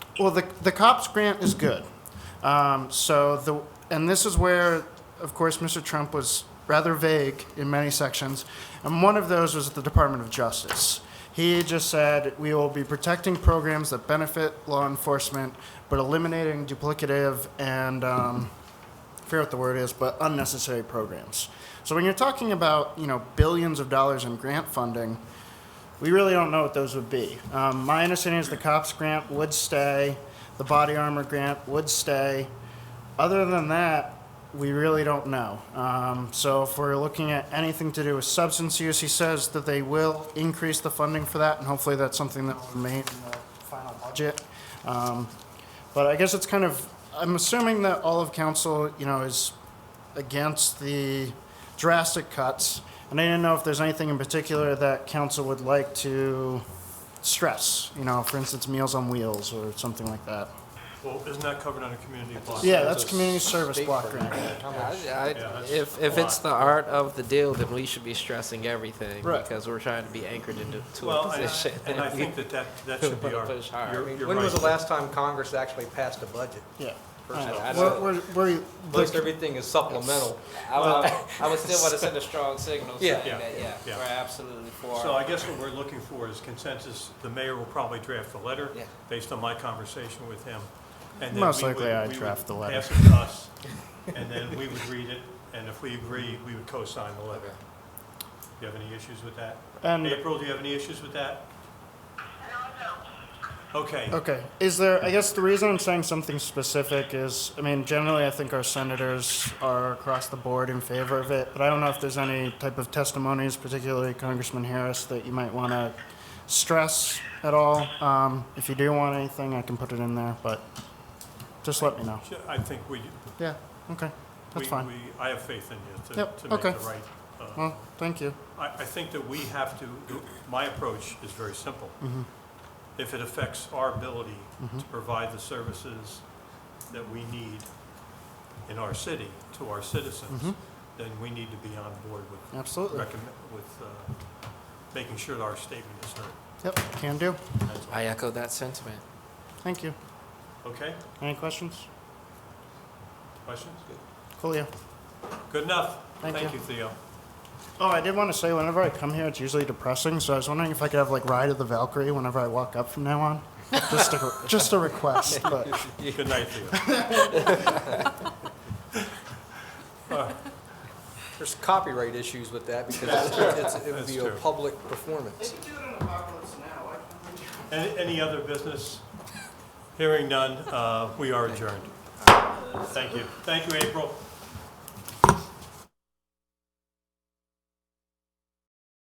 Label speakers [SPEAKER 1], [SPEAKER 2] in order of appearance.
[SPEAKER 1] Well, the, the COPS grant is good. Um, so the, and this is where, of course, Mr. Trump was rather vague in many sections. And one of those was the Department of Justice. He just said, we will be protecting programs that benefit law enforcement, but eliminating duplicative and, um, I forget what the word is, but unnecessary programs. So when you're talking about, you know, billions of dollars in grant funding, we really don't know what those would be. Um, my understanding is the cops grant would stay, the body armor grant would stay. Other than that, we really don't know. Um, so if we're looking at anything to do with substance use, he says that they will increase the funding for that, and hopefully that's something that will remain in the final budget. Um, but I guess it's kind of, I'm assuming that all of council, you know, is against the drastic cuts. And I didn't know if there's anything in particular that council would like to stress, you know, for instance, Meals on Wheels or something like that.
[SPEAKER 2] Well, isn't that covered under community block?
[SPEAKER 1] Yeah, that's community service block grant.
[SPEAKER 3] I- I-
[SPEAKER 2] that's
[SPEAKER 3] If,
[SPEAKER 2] a
[SPEAKER 3] if
[SPEAKER 2] lot.
[SPEAKER 3] it's the art of the deal, then we should be stressing everything.
[SPEAKER 1] Right.
[SPEAKER 3] Because we're trying to be anchored into to a
[SPEAKER 2] Well, and
[SPEAKER 3] position.
[SPEAKER 2] I- and I think that that, that should be our,
[SPEAKER 3] Push hard.
[SPEAKER 2] you're,
[SPEAKER 4] I mean,
[SPEAKER 2] you're
[SPEAKER 4] When was the
[SPEAKER 2] right.
[SPEAKER 4] last time Congress actually passed a budget?
[SPEAKER 1] Yeah.
[SPEAKER 3] I- I
[SPEAKER 1] We're,
[SPEAKER 3] don't-
[SPEAKER 1] we're, we're,
[SPEAKER 4] Most everything is supplemental.
[SPEAKER 3] I would, I would still want to send a strong signal
[SPEAKER 4] Yeah.
[SPEAKER 3] saying that, yeah,
[SPEAKER 2] Yeah.
[SPEAKER 3] we're absolutely
[SPEAKER 2] So
[SPEAKER 3] for.
[SPEAKER 2] I guess what we're looking for is consensus. The mayor will probably draft the letter,
[SPEAKER 3] Yeah.
[SPEAKER 2] based on my conversation with him. and then
[SPEAKER 1] Most
[SPEAKER 2] we would-
[SPEAKER 1] likely I'd
[SPEAKER 2] we would
[SPEAKER 1] draft the letter.
[SPEAKER 2] Pass it to us, and then we would read it, and if we agree, we would co-sign the letter. Do you have any issues with that?
[SPEAKER 1] and,
[SPEAKER 2] April, do you have any issues with that? Okay,
[SPEAKER 1] okay, is there, I guess the reason I'm saying something specific is, I mean, generally I think our senators are across the board in favor of it, but I don't know if there's any type of testimonies, particularly Congressman Harris, that you might want to stress at all. Um, if you do want anything, I can put it in there, but just let me know.
[SPEAKER 2] Sure, I think we,
[SPEAKER 1] Yeah, okay,
[SPEAKER 2] we,
[SPEAKER 1] that's fine.
[SPEAKER 2] we- I have faith in you to,
[SPEAKER 1] Yep,
[SPEAKER 2] to make the
[SPEAKER 1] okay.
[SPEAKER 2] right. uh,
[SPEAKER 1] Well, thank you.
[SPEAKER 2] I, I think that we have to, my approach is very simple.
[SPEAKER 1] Mm-hmm.
[SPEAKER 2] If it affects our ability to provide the services that we need in our city to our citizens,
[SPEAKER 1] Mm-hmm.
[SPEAKER 2] then we need to be on board with,
[SPEAKER 1] Absolutely.
[SPEAKER 2] recommend, with, uh, making sure that our statement is heard.
[SPEAKER 1] Yep, can do.
[SPEAKER 2] That's all.
[SPEAKER 3] I echo that sentiment.
[SPEAKER 1] Thank you.
[SPEAKER 2] Okay,
[SPEAKER 1] Any questions?
[SPEAKER 2] questions?
[SPEAKER 1] Coolio.
[SPEAKER 2] Good enough.
[SPEAKER 1] Thank
[SPEAKER 2] Thank
[SPEAKER 1] you.
[SPEAKER 2] you, Theo.
[SPEAKER 1] Oh, I did want to say, whenever I come here, it's usually depressing. So I was wondering if I could have like Ride of the Valkyrie whenever I walk up from now on. Just a, just a request, but
[SPEAKER 2] Good night, Theo.
[SPEAKER 4] There's copyright issues with that because it's- it's- it would
[SPEAKER 2] That's
[SPEAKER 4] be a
[SPEAKER 2] true.
[SPEAKER 4] public performance.
[SPEAKER 2] Any, any other business? Hearing none, uh, we are adjourned. Thank you. Thank you, April.